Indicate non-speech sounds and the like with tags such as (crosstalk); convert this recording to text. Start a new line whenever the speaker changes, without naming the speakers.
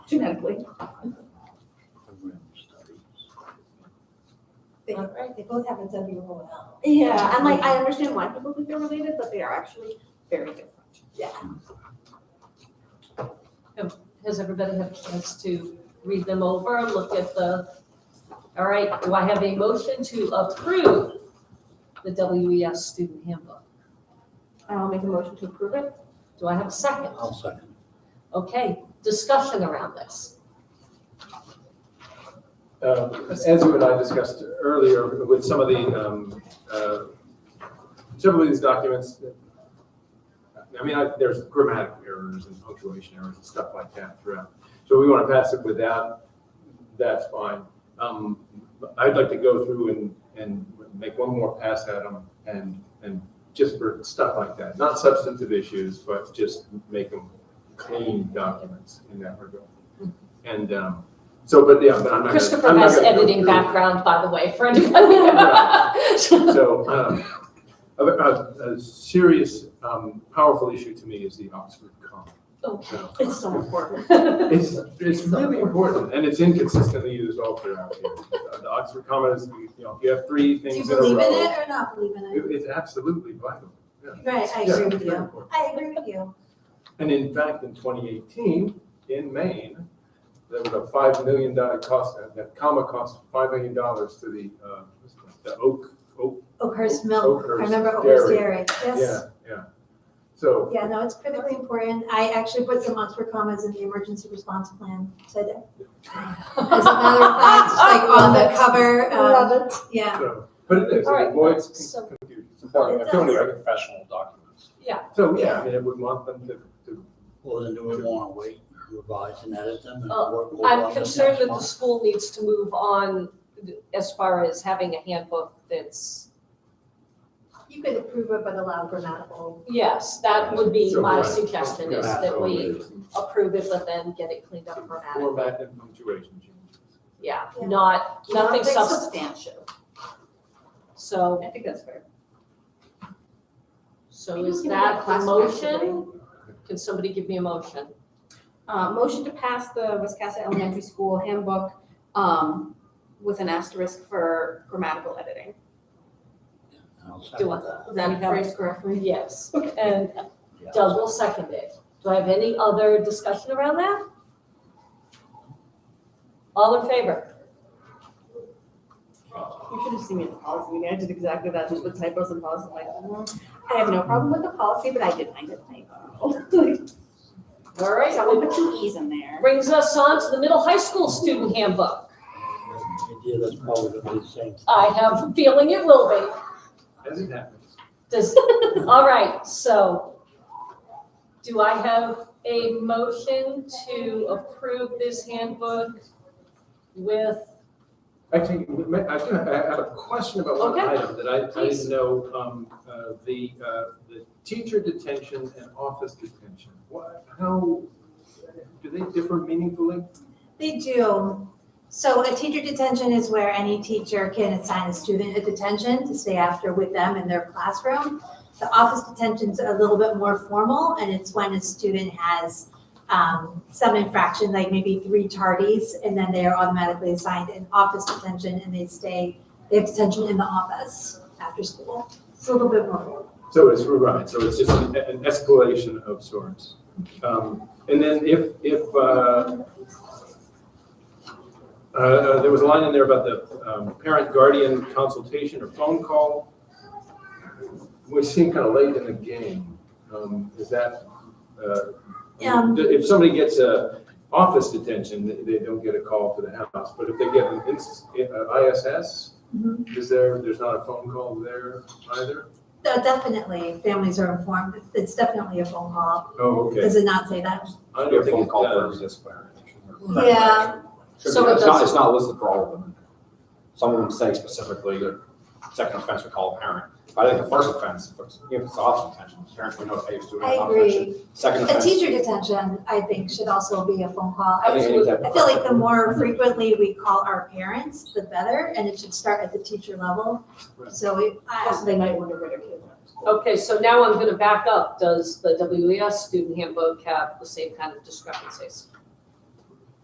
genetically.
They, they both have a W O L.
Yeah, and like, I understand why people think they're related, but they are actually very different.
Has everybody had a chance to read them over, look at the, all right, do I have a motion to approve the WES student handbook?
I'll make a motion to approve it.
Do I have a second?
I'll second.
Okay, discussion around this.
Uh, As you and I discussed earlier, with some of the, um, uh, several of these documents, I mean, I- there's grammatical errors and punctuation errors and stuff like that throughout. So we want to pass it without, that's fine. Um, but I'd like to go through and, and make one more pass at them and, and just for stuff like that. Not substantive issues, but just make them clean documents in that regard. And um, so, but yeah, but I'm not. gonna-
Hmm. Christopher
I'm not
has
gonna go
editing
through.
background, by the way, for anybody.
So, um, a, a, a serious, um, powerful issue to me is the Oxford comma.
Oh.
So,
It's so important.
It's, it's really important, and it's inconsistently used all throughout here. The Oxford comma is, you know, if you have three
Do you
things in a
believe in
row.
it or not believe in it?
it- It's absolutely vital. yeah.
Right, I
Yeah,
agree
it's
with you.
very important.
I agree with you.
And in fact, in 2018, in Maine, there was a $5 million cost, that comma cost $5 million to the, uh, what's it, the Oak, Oak,
Oakhurst Milk, I
Oakhurst
remember Oakhurst Dairy,
yeah,
yes.
yeah. So
Yeah, no, it's critically important. I actually put some Oxford commas in the emergency response plan today. As a matter of
(laughs)
fact, like on the cover, um,
Love it.
yeah.
So, But it is,
All
it
right,
avoids
so-
con- confusion.
It does.
They're professional documents.
So, yeah, I mean, I would want them to, to,
Well, then do we want to wait, revise and edit them and
Oh,
work? work on
I'm
them
concerned
next
that the
month?
school needs to move on as far as having a handbook that's,
You could approve it, but allow grammatical.
yes, that would be
So,
my
right.
suggestion is
Yeah.
that we
some
approve it, but then get it cleaned up
some
grammatically.
format and punctuation changes.
Yeah,
Yeah.
not, nothing substantive.
substantial.
So,
I think that's fair.
so
Maybe we
is
can have a
that a
class
motion? Can somebody give me a motion?
Uh, motion to pass the Wiscasset Elementary School handbook, um, with an asterisk for grammatical editing.
I'll
Do
second
what?
that.
Is that phrased correctly?
Yes, and
Yeah.
Doug will second it. Do I have any other discussion around that? All in favor?
You should have seen me at the policy meeting. I did exactly that, just with typos and policy. I'm like, mm, I have no problem with the policy, but I did find a typo. (laughs)
All
Right, so we
right,
put two E's in there.
brings us on to the middle high school student handbook.
Yeah, that's probably gonna be the same.
I have a feeling it will be.
As it happens.
Does, all right, so do I have a motion to approve this handbook with,
Actually, we may- I do, I have a question about one
Okay.
item that I, I
Please.
didn't know, um, uh, the, uh, the teacher detention and office detention. What, how, do they differ meaningfully?
They do. So a teacher detention is where any teacher can assign a student a detention to stay after with them in their classroom. The office detention's a little bit more formal, and it's when a student has um, some infraction, like maybe three tardies, and then they are automatically assigned an office detention, and they stay, they have detention in the office after school. It's a little bit more formal.
So it's, right, so it's just an an escalation of sorts. Um, And then if, if, uh, uh, there was a line in there about the um, parent guardian consultation or phone call, which seemed kind of late in the game. Um, Is that, uh,
Um.
if somebody gets a office detention, they- they don't get a call to the house, but if they get an ins- uh, ISS, is there, there's not a phone call there either?
So Definitely, families are informed. It's definitely a phone call.
Oh, okay.
Does it not say that?
I
They're
don't think
phone
it
call for
does.
resist fire.
Yeah.
So it
It's not,
doesn't-
it's not listed for all of them. Some of them say specifically that second offense would call a parent. But I think the first offense, if it's off intention, parents would know if they used to. do it
I
without intention.
agree.
Second
A
offense.
teacher detention, I think, should also be a phone call. I
think
was-
any type of-
I feel like the more frequently we call our parents, the better, and it should start at the teacher level.
Right.
So it, I,
Also, they might wonder where their kids are.
okay, so E now I'm gonna back up. Does the WES student handbook have the same kind of discrepancies?